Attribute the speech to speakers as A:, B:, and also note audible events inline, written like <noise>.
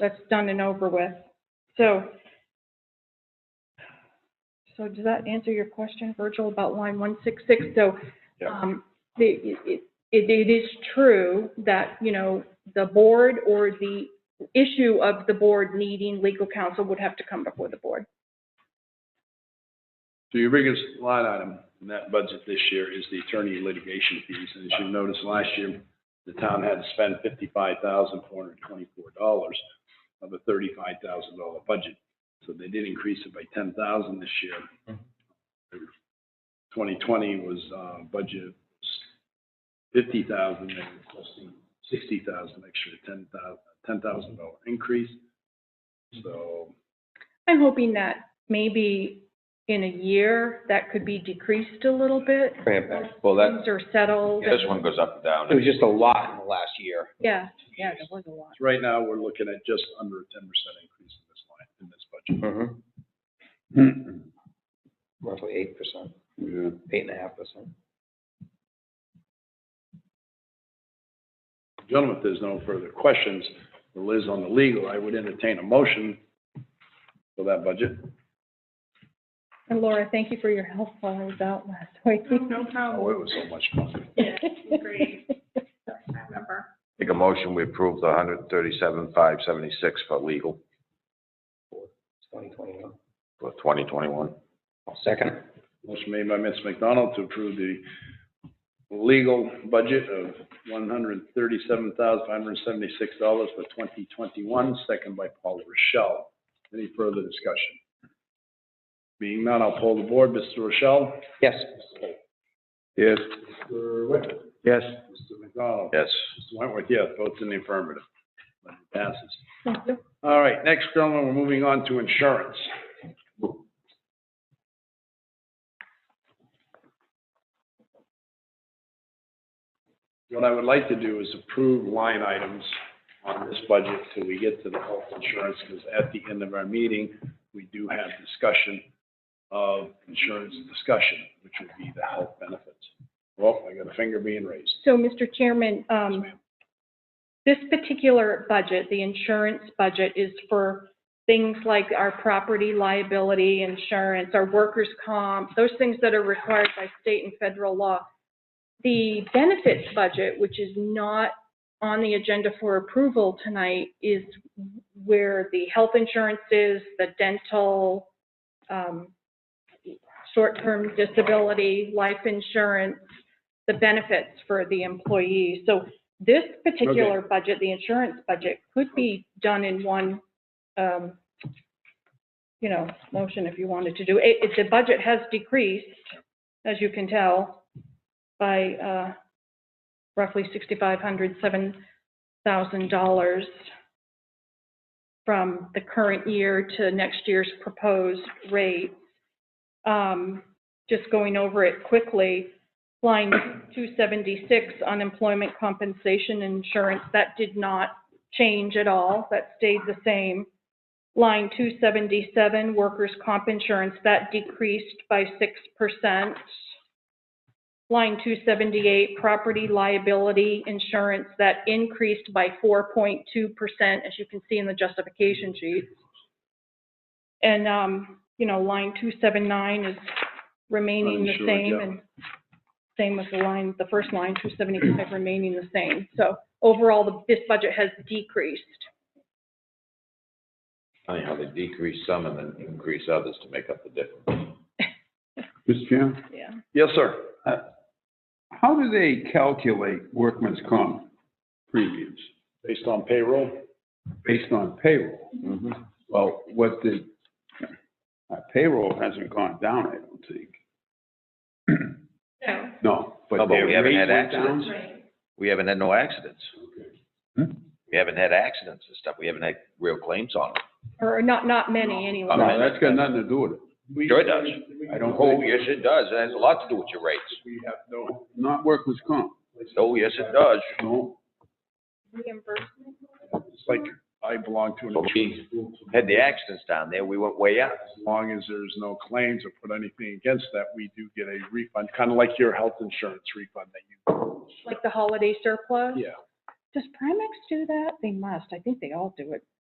A: that's done and over with. So, so does that answer your question, Virgil, about line one six six? So,
B: Yeah.
A: um, the, it, it, it is true that, you know, the board or the issue of the board needing legal counsel would have to come before the board.
B: So your biggest line item in that budget this year is the attorney litigation fees. And as you noticed last year, the town had to spend fifty-five thousand four hundred twenty-four dollars of a thirty-five thousand dollar budget. So they did increase it by ten thousand this year. Twenty twenty was, uh, budget fifty thousand, they're requesting sixty thousand extra, ten thousand, ten thousand dollar increase. So
A: I'm hoping that maybe in a year, that could be decreased a little bit.
C: Cramp it. Well, that,
A: Things are settled.
C: this one goes up and
D: It was
C: down.
D: just a lot in the last year.
A: Yeah, yeah, there was a lot.
B: right now, we're looking at just under a ten percent increase in this line, in this budget.
D: Mhm. <clears throat>
C: Mm-hmm.
D: Roughly eight percent, eight and a half percent.
B: Gentlemen, if there's no further questions, for Liz on the legal, I would entertain a motion for that budget.
A: And Laura, thank you for your help while I was out last week. <laughs>
E: No
B: Oh,
E: problem.
B: it was so much fun.
E: Yeah, great. I remember.
C: Make a motion, we approve the hundred thirty-seven, five seventy-six for legal
D: Twenty twenty-one.
C: for twenty twenty-one.
D: Second.
B: Motion made by Ms. McDonald to approve the legal budget of one hundred thirty-seven thousand, five hundred seventy-six dollars for twenty twenty-one, second by Paul Rochelle. Any further discussion? Being none, I'll poll the board. Mr. Rochelle?
D: Yes.
B: Yes. Mr. Whitman?
C: Yes.
B: Mr. McDonald?
C: Yes.
B: Mr. Wentworth, yes, votes in the affirmative. Motion Passes.
A: Thank you.
B: All right, next, gentlemen, we're moving on to insurance. What I would like to do is approve line items on this budget till we get to the health insurance, because at the end of our meeting, we do have discussion of insurance discussion, which would be the health benefits. Well, I got a finger being raised.
A: So, Mr. Chairman,
B: Yes,
A: um,
B: ma'am.
A: this particular budget, the insurance budget, is for things like our property liability insurance, our workers' comp, those things that are required by state and federal law. The benefits budget, which is not on the agenda for approval tonight, is where the health insurance is, the dental, um, short-term disability, life insurance, the benefits for the employee. So this particular budget, the insurance budget, could be done in one, um, you know, motion if you wanted to do. It, it, the budget has decreased, as you can tell, by, uh, roughly sixty-five hundred, seven thousand dollars from the current year to next year's proposed rate. Um, just going over it quickly, line 276, unemployment compensation insurance, that did not change at all, that stayed the same. Line 277, workers' comp insurance, that decreased by 6%. Line 278, property liability insurance, that increased by 4.2%, as you can see in the justification sheet. And, um, you know, line 279 is remaining the
B: Uninsured,
A: same,
B: yeah.
A: and same with the line, the first line, 275 remaining the same. So overall, the- this budget has decreased.
C: Funny how they decrease some and then increase others to make up the difference.
F: Mr. Chairman,
A: Yeah.
B: Yes, sir.
F: how do they calculate workman's comp premiums?
B: Based on payroll?
F: Based on payroll?
C: Mm-hmm.
F: Well, what the, uh, payroll hasn't gone down, I don't think.
E: No,
F: No, but
C: No, Oh, but
F: their
C: we haven't had
F: rate went down?
C: accidents.
E: right.
C: We haven't had no accidents.
F: Hmm?
C: We haven't had accidents and stuff. We haven't had real claims on them.
A: Or not, not many anyway.
F: No, that's got nothing to do with it.
C: Sure it does.
F: I don't
C: Oh,
F: think,
C: yes, it does. It has a lot to do with your rates.
B: We have no
F: not workman's comp,
C: Oh, yes, it does.
F: no.
A: Reimbursement?
B: It's like I belong to an
C: But
B: insurance
C: we
B: group.
C: had the accidents down there, we went way up.
B: As long as there's no claims or put anything against that, we do get a refund, kind of like your health insurance refund that
A: Like the holiday surplus?
B: you, yeah.
A: Does Primex do that? They must. I think they all do it.